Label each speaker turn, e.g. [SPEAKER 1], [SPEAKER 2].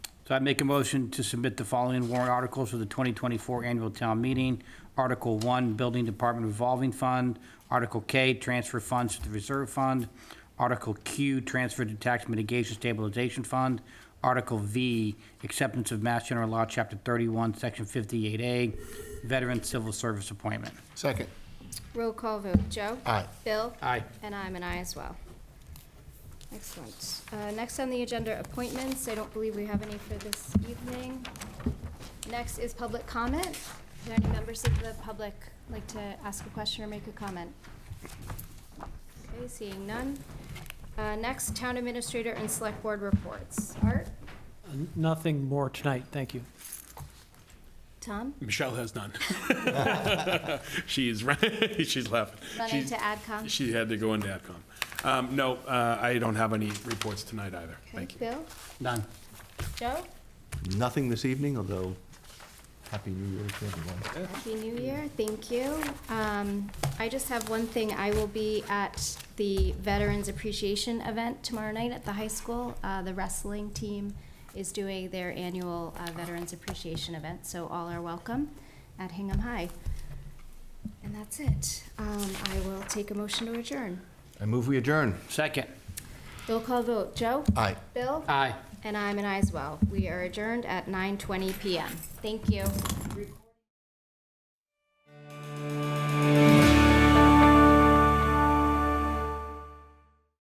[SPEAKER 1] So I make a motion to submit the following warrant articles for the 2024 annual town meeting. Article 1, Building Department Revolving Fund. Article K, Transfer Funds to the Reserve Fund. Article Q, Transfer to Tax Mitigation Stabilization Fund. Article V, Acceptance of Mass General Law, Chapter 31, Section 58A, Veteran Civil Service Appointment.
[SPEAKER 2] Second.
[SPEAKER 3] Roll call vote, Joe?
[SPEAKER 2] Aye.
[SPEAKER 3] Bill?
[SPEAKER 1] Aye.
[SPEAKER 3] And I'm an aye as well. Excellent. Uh, Next on the agenda, appointments. I don't believe we have any for this evening. Next is public comment. Are there any members of the public like to ask a question or make a comment? Okay, seeing none. Uh, Next, town administrator and select board reports. Art?
[SPEAKER 4] Nothing more tonight, thank you.
[SPEAKER 3] Tom?
[SPEAKER 5] Michelle has none. she's running. she's laughing.
[SPEAKER 3] Running
[SPEAKER 5] She's-
[SPEAKER 3] to AdCom?
[SPEAKER 5] She had to go into AdCom. Um, no, uh, I don't have any reports tonight either.
[SPEAKER 3] Okay,
[SPEAKER 5] Thank you.
[SPEAKER 3] Bill?
[SPEAKER 1] Done.
[SPEAKER 3] Joe?
[SPEAKER 2] Nothing this evening, although, Happy New Year to everyone.
[SPEAKER 3] Happy New Year, thank you. Um, I just have one thing, I will be at the Veterans Appreciation Event tomorrow night at the high school. Uh, The wrestling team is doing their annual uh, Veterans Appreciation Event, so all are welcome at Hingham High. And that's it. Um, I will take a motion to adjourn.
[SPEAKER 2] I move we adjourn.
[SPEAKER 1] Second.
[SPEAKER 3] Roll call vote, Joe?
[SPEAKER 2] Aye.
[SPEAKER 3] Bill?
[SPEAKER 1] Aye.
[SPEAKER 3] And I'm an aye as well. We are adjourned at 9:20 PM. Thank you.